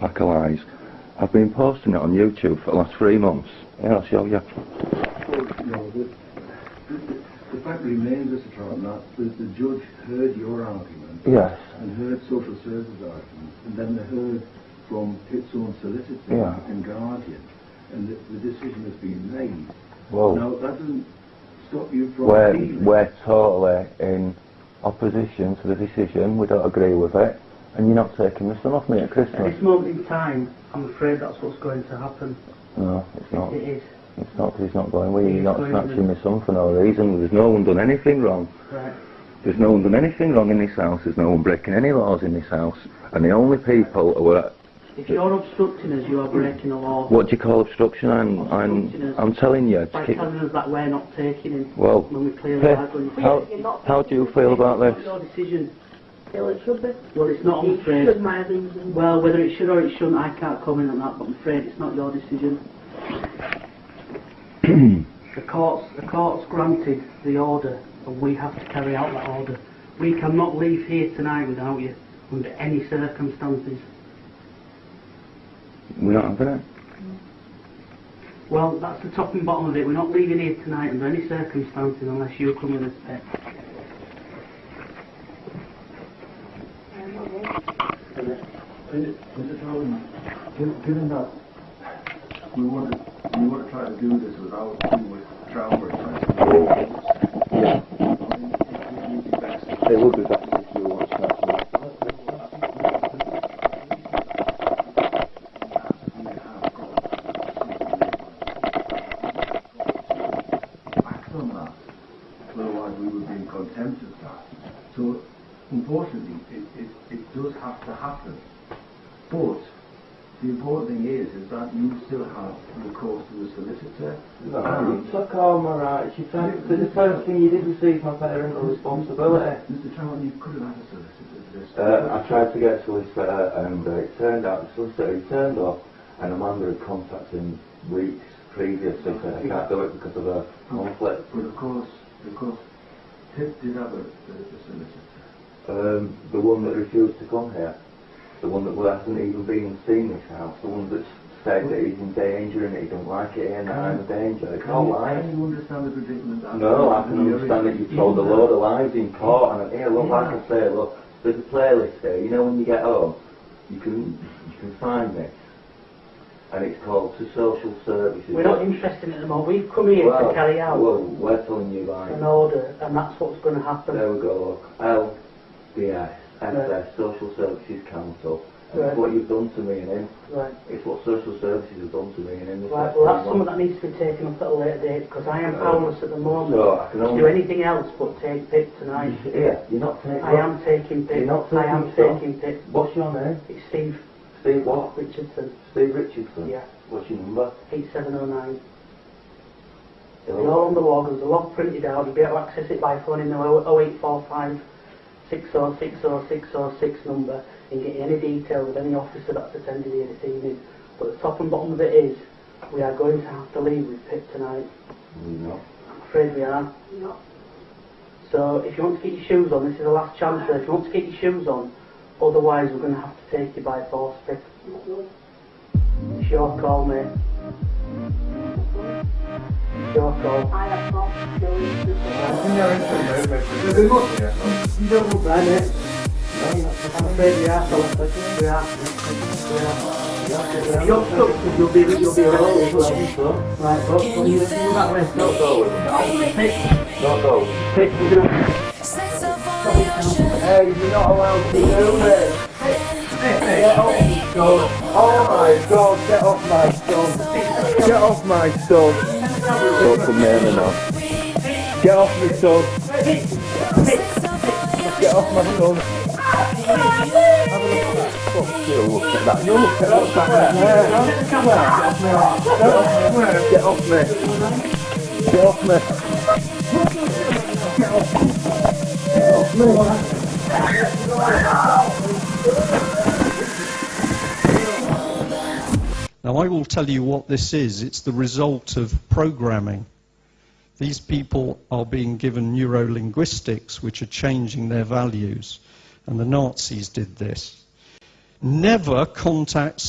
pack of lies. I've been posting it on YouTube for the last three months. Here, I'll show you. Well, no, the, the, the fact remains, Mr. Trotman, that the judge heard your argument Yes. and heard social services argument, and then they heard from its own solicitor Yeah. and guardian, and the, the decision has been made. Well, Now, that doesn't stop you from we're, appealing. we're totally in opposition to the decision. We don't agree with it. And you're not taking the sun off me at At Christmas. this moment in time, I'm afraid that's what's going to happen. No, it's not. It is. It's not 'cause he's not going with you. You're He's not going snatching my son for no reason. There's no one done anything wrong. Right. There's no one done anything wrong in this house. There's no one breaking any laws in this house. And the only people who are... If you're obstructing us, you are breaking the law. What do you call obstruction? I'm, Obstruction I'm, is- I'm telling you. By to keep- telling us that we're not taking him. Well, when we clearly Pip, are going to. how, how do you feel about It's this? your decision. Well, it should be. Well, it's not, I'm It afraid. should, my reason. Well, whether it should or it shouldn't, I can't comment on that, but I'm afraid it's not your decision. the court's, the court's granted the order, and we have to carry out that order. We cannot leave here tonight without you, under any circumstances. We're not having it. Well, that's the top and bottom of it. We're not leaving here tonight under any circumstances unless you come with us, Pet. Mr. Trotman, given, given that we want to, we want to try to do this without doing with trial work, Oh. Yeah, I mean, it would be best. it would be better if you watched that. Back on that. Otherwise, we would be in contempt of that. So, unfortunately, it, it, it does have to happen. But the important thing is, is that you still have recourse to the solicitor. and- Took all my rights. You tried- the first thing you did was seize my parental responsibility. Mr. Trout, Uh, you could have had a solicitor for this. Uh, I tried to get a solicitor and uh, it turned out the solicitor he turned up and Amanda had contacted him weeks previously said I can't do it because of a conflict. But of course, of course, Pip did have a, a, a solicitor. Um, the one that refused to come here, the one that well, hasn't even been and seen this house, the one that's said that he's in danger and he don't like it here and that I'm a danger. It's all you, lies. Can you understand the predicament that No, I can You're understand that in- you've told a load of lies in court and here, look, Yeah. like I say, look, there's a playlist here, you know when you get home, you can you can find this. And it's called to social services. We're not interested in the moment. We've come here to carry out Well, we're telling you like an order, and that's what's going to happen. there we go, look. L B S SS Social Services Council. And it's Right. what you've done to me and him. Right. It's what social services have done to me and him. It's what Right, well, they want. that's something that needs to be taken up at a later date because I am Uh, powerless at the moment No, I can to only do anything else but take Pip tonight. Yeah, you're not taking I am taking Mm-hmm. You're not Pip. I am taking stuff. taking Pip. What's your name? It's Steve Steve what? Richardson. Steve Richardson. Yeah, What's your number? 8709. They're all on the log. There's a log printed out. You'll be able to access it by phoning the oh, 0845 oh, 6060606 number and get any details of any officer that's attended here this evening. But the top and bottom of it is, we are going to have to leave with Pip tonight. No. I'm afraid we are. No. So if you want to get your shoes on, this is the last chance. There. If you want to get your shoes on, otherwise we're going to have to take you by force. Pick. It's your call, mate. It's your call. I have not chosen to. You don't look right, mate. I'm afraid we are, fella. We are. We are. If you're stuck, you'll be, you'll be alone as well. Right, but Can you you're feel that way. me? No, Not those. Pick, we're going to... Sex up on the ocean. Hey, you're not allowed to do this. Oh my god, get off my son. Get off my son. Don't come near me now. Get off my son. Get off my son. Fuck you, look at that. You look at that back there. Get off me. Get off me. Now, I will tell you what this is. It's the result of programming. These people are being given neurolinguistics, which are changing their values. And the Nazis did this. Never contact